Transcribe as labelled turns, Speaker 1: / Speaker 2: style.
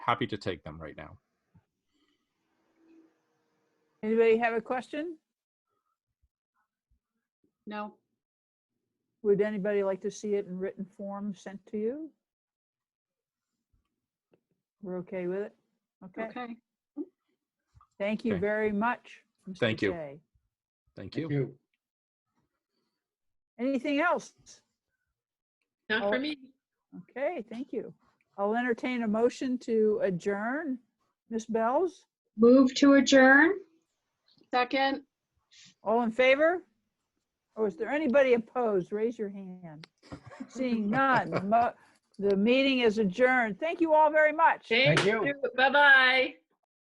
Speaker 1: happy to take them right now.
Speaker 2: Anybody have a question?
Speaker 3: No,
Speaker 2: Would anybody like to see it in written form sent to you? We're okay with it? Okay,
Speaker 3: okay.
Speaker 2: thank you
Speaker 1: Okay.
Speaker 2: very much. Mr.
Speaker 1: Thank you.
Speaker 2: Shea.
Speaker 1: Thank
Speaker 4: Thank
Speaker 1: you.
Speaker 4: you.
Speaker 2: Anything else?
Speaker 5: Not
Speaker 2: Oh.
Speaker 5: for me.
Speaker 2: Okay, thank you. I'll entertain a motion to adjourn. Ms. Bells,
Speaker 3: Move to adjourn? Second,
Speaker 2: all in favor? Or is there anybody opposed? Raise your hand. Seeing none, the mo- the meeting is adjourned. Thank you all very much.
Speaker 5: Thank
Speaker 4: you.
Speaker 5: you. Bye-bye.